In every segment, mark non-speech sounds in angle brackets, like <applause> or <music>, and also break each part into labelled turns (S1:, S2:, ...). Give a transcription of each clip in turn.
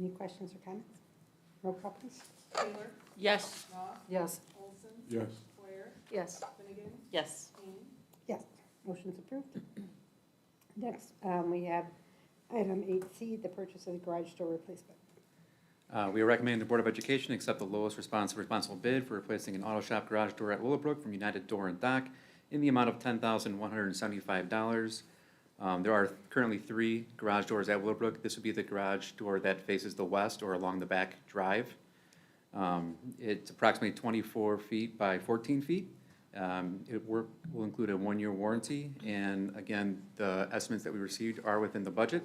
S1: Any questions or comments? Roll call, please.
S2: Taylor,
S3: Yes.
S2: Ross,
S4: Yes.
S2: Olson,
S5: Yes.
S2: Moyer,
S4: Yes.
S2: Finnegan,
S3: Yes.
S2: Kane.
S1: Yes, motion's approved. Next, um, we have item eight C, the purchase of the garage door replacement.
S6: Uh, We are recommending the Board of Education accept the lowest responsive responsible bid for replacing an auto shop garage door at Willowbrook from United Door and Dock in the amount of ten thousand one hundred and seventy-five dollars. Um, There are currently three garage doors at Willowbrook. This would be the garage door that faces the west or along the back drive. Um, It's approximately twenty-four feet by fourteen feet. Um, It wor- will include a one-year warranty, and again, the estimates that we received are within the budget.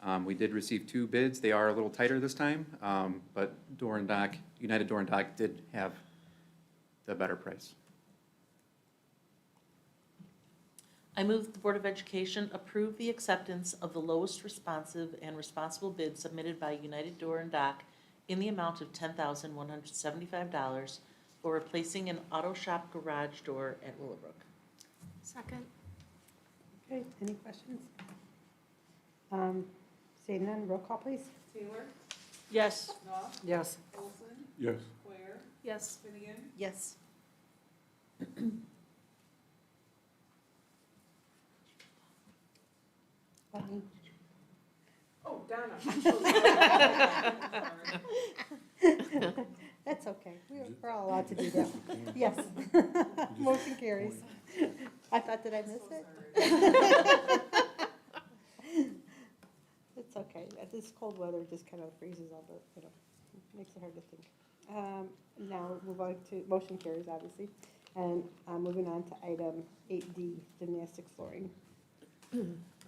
S6: Um, We did receive two bids. They are a little tighter this time, um, but Door and Dock, United Door and Dock did have the better price.
S3: I move that the Board of Education approve the acceptance of the lowest responsive and responsible bid submitted by United Door and Dock in the amount of ten thousand one hundred seventy-five dollars for replacing an auto shop garage door at Willowbrook.
S4: Second.
S1: Okay, any questions? Um, Seeing none, roll call, please.
S2: Taylor,
S3: Yes.
S2: Ross,
S4: Yes.
S2: Olson,
S5: Yes.
S2: Moyer,
S4: Yes.
S2: Finnegan,
S3: Yes.
S1: Bonnie?
S2: oh, <laughs> Donna. Sorry.
S1: That's okay, We're- we're all allowed to do
S5: <laughs>
S1: that. Yes. Motion carries. I thought, did I miss it? It's okay, Uh, this cold weather just kind of freezes all the, you know, makes it hard to think. Um, Now, we'll move on to, motion carries, obviously, and uh, moving on to item eight D, gymnastic flooring.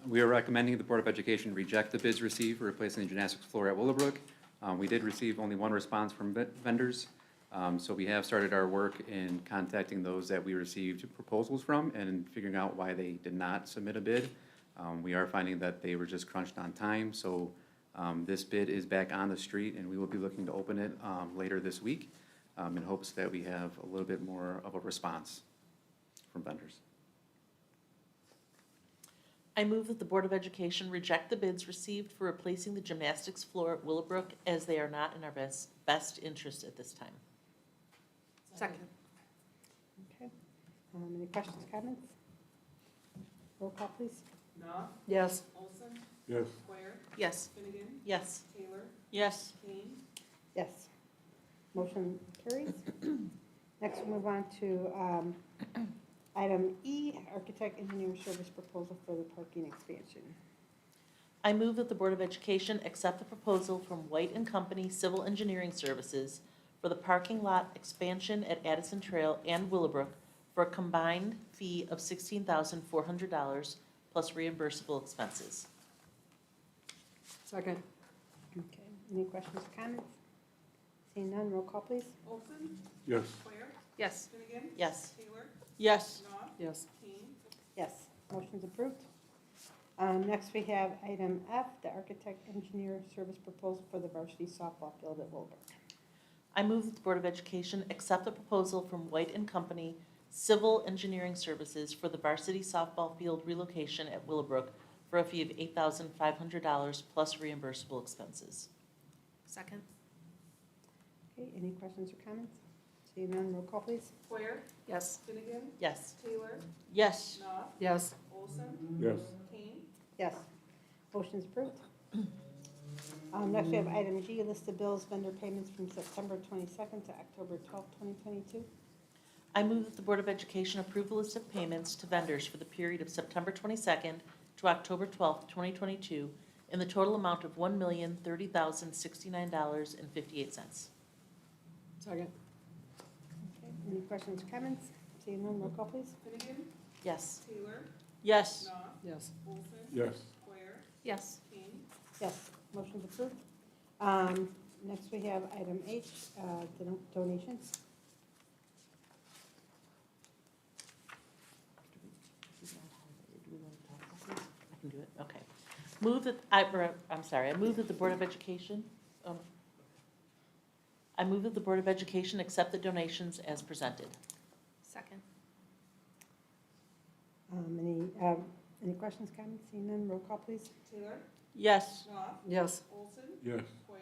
S6: We are recommending the Board of Education reject the bids received for replacing the gymnastics floor at Willowbrook. Um, We did receive only one response from ve- vendors, um, so we have started our work in contacting those that we received proposals from and figuring out why they did not submit a bid. Um, We are finding that they were just crunched on time, so um, this bid is back on the street, and we will be looking to open it um, later this week um, in hopes that we have a little bit more of a response from vendors.
S3: I move that the Board of Education reject the bids received for replacing the gymnastics floor at Willowbrook as they are not in our best, best interest at this time.
S4: Second.
S1: Okay. Um, Any questions, comments? Roll call, please.
S2: Knopf,
S4: Yes.
S2: Olson,
S5: Yes.
S2: Moyer,
S3: Yes.
S2: Finnegan,
S3: Yes.
S2: Taylor,
S3: Yes.
S2: Kane.
S1: Yes. Motion carries. Next, we'll move on to um, <coughs> item E, architect engineering service proposal for the parking expansion.
S3: I move that the Board of Education accept the proposal from White and Company Civil Engineering Services for the parking lot expansion at Addison Trail and Willowbrook for a combined fee of sixteen thousand four hundred dollars plus reimbursable expenses.
S4: Second.
S1: Okay, any questions or comments? Seeing none, roll call, please.
S2: Olson,
S5: Yes.
S2: Moyer,
S4: Yes.
S2: Finnegan,
S3: Yes.
S2: Taylor,
S3: Yes.
S2: Knopf,
S4: Yes.
S2: Kane.
S1: Yes, motion's approved. Um, Next, we have item F, the architect engineer service proposal for the varsity softball field at Wilbur.
S3: I move that the Board of Education accept the proposal from White and Company Civil Engineering Services for the varsity softball field relocation at Willowbrook for a fee of eight thousand five hundred dollars plus reimbursable expenses.
S4: Second.
S1: Okay, any questions or comments? Seeing none, roll call, please.
S2: Moyer,
S4: Yes.
S2: Finnegan,
S3: Yes.
S2: Taylor,
S3: Yes.
S2: Knopf,
S4: Yes.
S2: Olson,
S5: Yes.
S2: Kane.
S1: Yes. Motion's approved. Um, next we have item G, list of bills, vendor payments from September twenty-second to October twelfth, twenty twenty-two.
S3: I move that the Board of Education approve the list of payments to vendors for the period of September 22nd to October 12th, 2022, in the total amount of $1,030,069.58.
S4: Second.
S1: Any questions or comments? Seeing none, roll call please.
S2: Finnegan,
S3: Yes.
S2: Taylor,
S3: Yes.
S2: Knopf,
S4: Yes.
S2: Olson,
S5: Yes.
S2: Moyer,
S4: Yes.
S2: Kane.
S1: Yes, motion's approved. Um, next we have item H, uh, don- donations.
S3: I can do it, okay. Move that, I, or, I'm sorry, I move that the Board of Education, um, I move that the Board of Education accept the donations as presented.
S4: Second.
S1: Um, any, um, any questions, comments? Seeing none, roll call please.
S2: Taylor,
S3: Yes.
S2: Knopf,
S4: Yes.
S2: Olson,
S5: Yes.
S2: Moyer,